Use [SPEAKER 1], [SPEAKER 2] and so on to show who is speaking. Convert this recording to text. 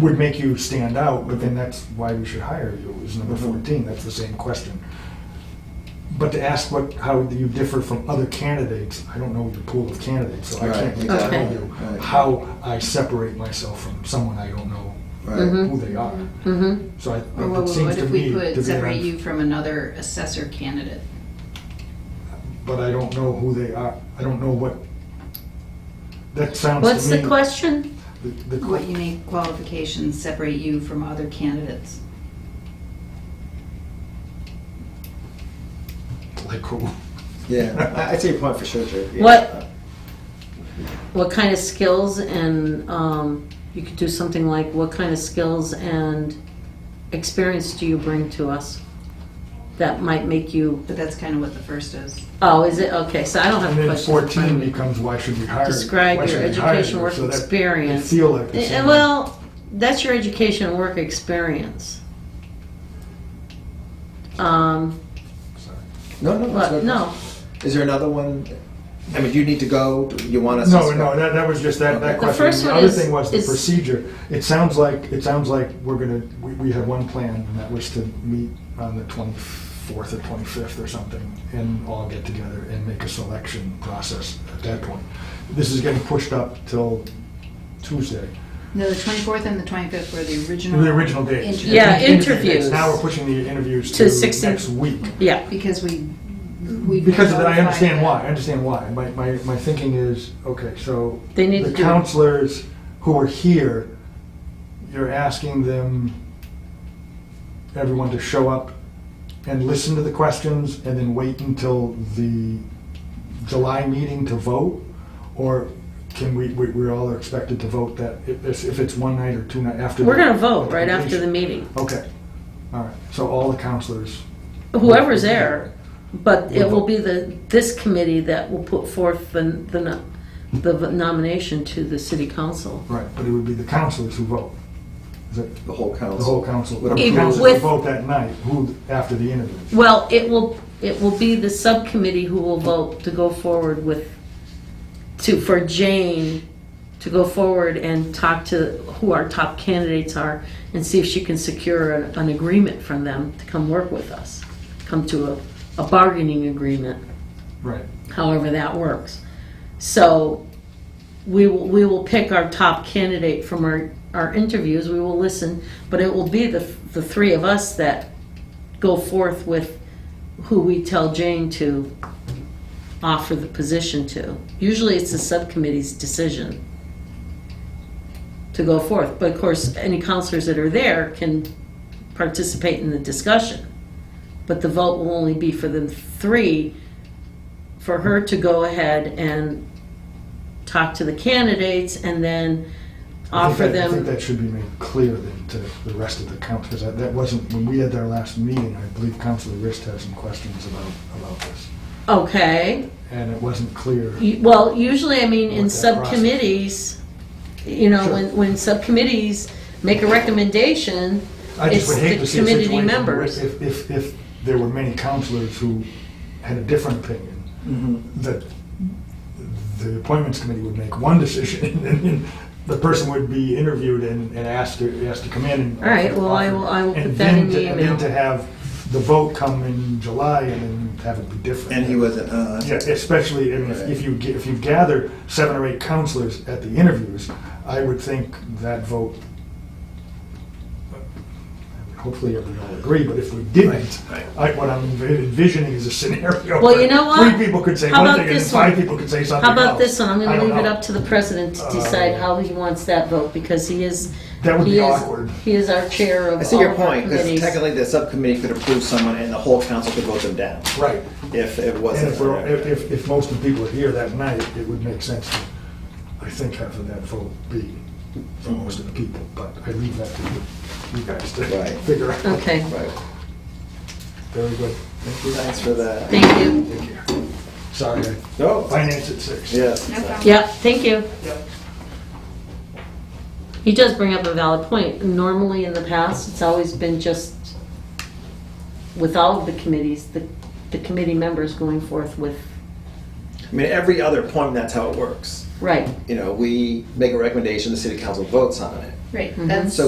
[SPEAKER 1] would make you stand out, but then that's why we should hire you, is number
[SPEAKER 2] Mm-hmm.
[SPEAKER 1] 14, that's the same question. But to ask what, how do you differ from other candidates, I don't know your pool of candidates, so I
[SPEAKER 2] Right,
[SPEAKER 1] can't really
[SPEAKER 2] yeah,
[SPEAKER 1] tell
[SPEAKER 3] Okay.
[SPEAKER 1] you
[SPEAKER 2] right.
[SPEAKER 1] how I separate myself from someone I don't know
[SPEAKER 2] Right.
[SPEAKER 3] Mhm.
[SPEAKER 1] who they are.
[SPEAKER 3] Mm-hmm.
[SPEAKER 1] So I,
[SPEAKER 4] Or
[SPEAKER 1] it
[SPEAKER 4] what,
[SPEAKER 1] seems
[SPEAKER 4] what
[SPEAKER 1] to
[SPEAKER 4] if
[SPEAKER 1] me
[SPEAKER 4] we
[SPEAKER 1] to
[SPEAKER 4] put
[SPEAKER 1] be,
[SPEAKER 4] separate
[SPEAKER 1] an-
[SPEAKER 4] you from another assessor candidate?
[SPEAKER 1] but I don't know who they are, I don't know what, that sounds to me.
[SPEAKER 3] What's the question?
[SPEAKER 1] the- the que-
[SPEAKER 4] What unique qualifications separate you from other candidates?
[SPEAKER 1] Like who?
[SPEAKER 2] Yeah, I- I'd say a point for sure, Jerry. Yeah.
[SPEAKER 3] What- What kind of skills and, um, you could do something like, what kind of skills and experience do you bring to us? That might make you,
[SPEAKER 4] But that's kind of what the first is.
[SPEAKER 3] oh, is it, okay, so I don't have
[SPEAKER 1] And
[SPEAKER 3] a
[SPEAKER 1] then
[SPEAKER 3] question. in front of
[SPEAKER 1] fourteen
[SPEAKER 3] me.
[SPEAKER 1] becomes, why should we hire? why
[SPEAKER 3] Describe your
[SPEAKER 1] should we hire
[SPEAKER 3] education
[SPEAKER 1] you?
[SPEAKER 3] work
[SPEAKER 1] So that- I
[SPEAKER 3] experience.
[SPEAKER 1] feel like the
[SPEAKER 3] Eh,
[SPEAKER 1] same.
[SPEAKER 3] Well, that's your education and work experience. Um,
[SPEAKER 1] Sorry.
[SPEAKER 2] No, no, that's
[SPEAKER 3] but
[SPEAKER 2] good.
[SPEAKER 3] no,
[SPEAKER 2] Is there another one? I mean, do you need to go? Do you want us?
[SPEAKER 1] No,
[SPEAKER 2] to
[SPEAKER 1] no, that, that was just that, that
[SPEAKER 2] The
[SPEAKER 1] question.
[SPEAKER 3] first
[SPEAKER 1] The
[SPEAKER 3] one
[SPEAKER 1] other
[SPEAKER 3] is-
[SPEAKER 1] thing was the
[SPEAKER 3] is-
[SPEAKER 1] procedure. It sounds like, it sounds like we're gonna, we, we had one plan, and that was to meet on the twenty-fourth or twenty-fifth or something, and all get together and make a selection process at that point. This is getting pushed up till Tuesday,
[SPEAKER 4] No, the 24th and the 25th were the original.
[SPEAKER 1] the original dates.
[SPEAKER 4] interview.
[SPEAKER 3] Mm. Yeah,
[SPEAKER 1] Interview dates.
[SPEAKER 3] interviews.
[SPEAKER 1] Now we're pushing the interviews
[SPEAKER 3] To
[SPEAKER 1] to
[SPEAKER 3] 16
[SPEAKER 1] next week.
[SPEAKER 3] yeah,
[SPEAKER 4] Because we, we.
[SPEAKER 1] Because of that, I
[SPEAKER 4] notified
[SPEAKER 1] understand
[SPEAKER 4] them.
[SPEAKER 1] why, I understand why. My, my, my thinking is, okay, so.
[SPEAKER 3] They need
[SPEAKER 1] The
[SPEAKER 3] to do-
[SPEAKER 1] counselors who are here, you're asking them, everyone to show up and listen to the questions and then wait until the July meeting to vote? Or can we, we, we all are expected to vote that, if, it's- if it's one night or two night after?
[SPEAKER 3] we're
[SPEAKER 1] the-
[SPEAKER 3] gonna vote right after the meeting,
[SPEAKER 1] Okay, all right, so all the counselors.
[SPEAKER 3] whoever's there, but it will be the, this committee that will put forth the, the no- the nomination to the city council.
[SPEAKER 1] Right, but it would be the counselors who vote. Is it?
[SPEAKER 2] The whole council.
[SPEAKER 1] The whole council,
[SPEAKER 2] Would
[SPEAKER 1] the
[SPEAKER 3] Even
[SPEAKER 1] council
[SPEAKER 3] with-
[SPEAKER 1] vote that night, who, after the interview.
[SPEAKER 3] Well, it will, it will be the subcommittee who will vote to go forward with, to, for Jane to go forward and talk to who our top candidates are and see if she can secure an, an agreement from them to come work with us, come to a, a bargaining agreement,
[SPEAKER 1] Right.
[SPEAKER 3] however that works. So we will, we will pick our top candidate from our, our interviews, we will listen, but it will be the, the three of us that go forth with who we tell Jane to offer the position to. Usually it's the subcommittee's decision to go forth, but of course, any counselors that are there can participate in the discussion. But the vote will only be for the three, for her to go ahead and talk to the candidates and then
[SPEAKER 1] I think
[SPEAKER 3] offer
[SPEAKER 1] that- I think
[SPEAKER 3] them.
[SPEAKER 1] that should be made clear then to the rest of the council, because that that wasn't, when we had our last meeting, I believe Councilor Rist had some questions about, about this.
[SPEAKER 3] Okay.
[SPEAKER 1] And it wasn't clear.
[SPEAKER 3] You- Well, usually, I mean, in
[SPEAKER 1] With that process.
[SPEAKER 3] subcommittees, you know,
[SPEAKER 1] Sure.
[SPEAKER 3] when, when subcommittees make a recommendation,
[SPEAKER 1] I just would
[SPEAKER 3] it's
[SPEAKER 1] hate
[SPEAKER 3] the
[SPEAKER 1] to see a
[SPEAKER 3] committee
[SPEAKER 1] situation where
[SPEAKER 3] members.
[SPEAKER 1] if, if, if there were many councilors who had a different opinion, that the appointments committee would make one decision, and then the person would be interviewed and, and asked to, asked to come in and.
[SPEAKER 3] All right, well, I will- I will
[SPEAKER 1] And
[SPEAKER 3] put that
[SPEAKER 1] then
[SPEAKER 3] in the
[SPEAKER 1] to- And then
[SPEAKER 3] email.
[SPEAKER 1] to have the vote come in July and then have it be different.
[SPEAKER 2] And he wasn't. Uh,
[SPEAKER 1] Yeah, especially, I mean, if- if you, ga- if you gather seven or eight counselors at the interviews, I would think that vote, hopefully we all agree, but if we didn't,
[SPEAKER 2] Right,
[SPEAKER 1] I, what I'm envi- envisioning is a scenario.
[SPEAKER 3] Well,
[SPEAKER 1] where
[SPEAKER 3] you know what?
[SPEAKER 1] Three people could say
[SPEAKER 3] How
[SPEAKER 1] one
[SPEAKER 3] about
[SPEAKER 1] thing and
[SPEAKER 3] this one?
[SPEAKER 1] five people could say something
[SPEAKER 3] How
[SPEAKER 1] else.
[SPEAKER 3] about this one? I'm
[SPEAKER 1] I
[SPEAKER 3] gonna
[SPEAKER 1] don't
[SPEAKER 3] leave it
[SPEAKER 1] know.
[SPEAKER 3] up to the president to decide
[SPEAKER 1] Uh,
[SPEAKER 3] how he wants that vote, because he is.
[SPEAKER 1] That would
[SPEAKER 3] he
[SPEAKER 1] be
[SPEAKER 3] is-
[SPEAKER 1] awkward.
[SPEAKER 3] He is our chair of
[SPEAKER 2] I see
[SPEAKER 3] all
[SPEAKER 2] your
[SPEAKER 3] of our
[SPEAKER 2] point because
[SPEAKER 3] committees.
[SPEAKER 2] technically the subcommittee could approve someone and the whole council could vote them down
[SPEAKER 1] Right.
[SPEAKER 2] if it
[SPEAKER 1] And
[SPEAKER 2] wasn't.
[SPEAKER 1] if, we're- if- if, if most of the people are here that night, it would make sense to, I think, have that vote be for most of the people, but I leave that to you- you guys to
[SPEAKER 2] Right.
[SPEAKER 1] figure out.
[SPEAKER 3] Okay,
[SPEAKER 2] right.
[SPEAKER 1] Very good.
[SPEAKER 2] Thanks for that.
[SPEAKER 3] thank you.
[SPEAKER 1] Thank you. Sorry,
[SPEAKER 2] No.
[SPEAKER 1] finance at six.
[SPEAKER 2] Yes.
[SPEAKER 4] No problem.
[SPEAKER 3] Yep, thank you. He does bring up a valid point. Normally, in the past, it's always been just with all of the committees, the, the committee members going forth with,
[SPEAKER 2] I mean, every other point, that's how it works.
[SPEAKER 3] right.
[SPEAKER 2] You know, we make a recommendation, the city council votes on it.
[SPEAKER 4] Right, that's.
[SPEAKER 2] So